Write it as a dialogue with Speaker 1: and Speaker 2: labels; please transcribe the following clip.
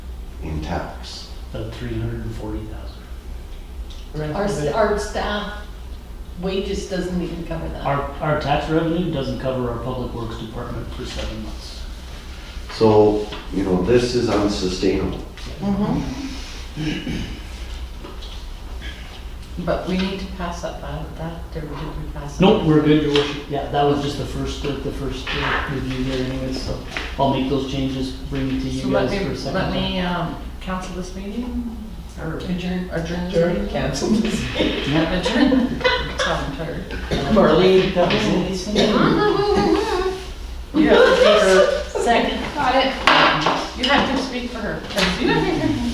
Speaker 1: in tax.
Speaker 2: About three hundred and forty thousand.
Speaker 3: Our, s- our staff wages doesn't even cover that.
Speaker 2: Our, our tax revenue doesn't cover our public works department for seven months.
Speaker 1: So, you know, this is unsustainable.
Speaker 3: But we need to pass up out that, did we did we pass? it?
Speaker 2: Nope, we're good, your worship. Yeah, that was just the first, the the first uh, review there anyways, so I'll make those changes, bring it to
Speaker 3: So
Speaker 2: you
Speaker 3: let
Speaker 2: guys for a
Speaker 3: me,
Speaker 2: second.
Speaker 3: let me, um, cancel this meeting or adjourn, adjourn this
Speaker 4: Adjourn,
Speaker 3: meeting.
Speaker 4: cancel this.
Speaker 2: Yeah.
Speaker 3: Adjourn. Sound tired.
Speaker 4: Marlene,
Speaker 2: That was it.
Speaker 3: You have to speak for,
Speaker 4: second.
Speaker 3: got it. You have to speak for her. 'cause You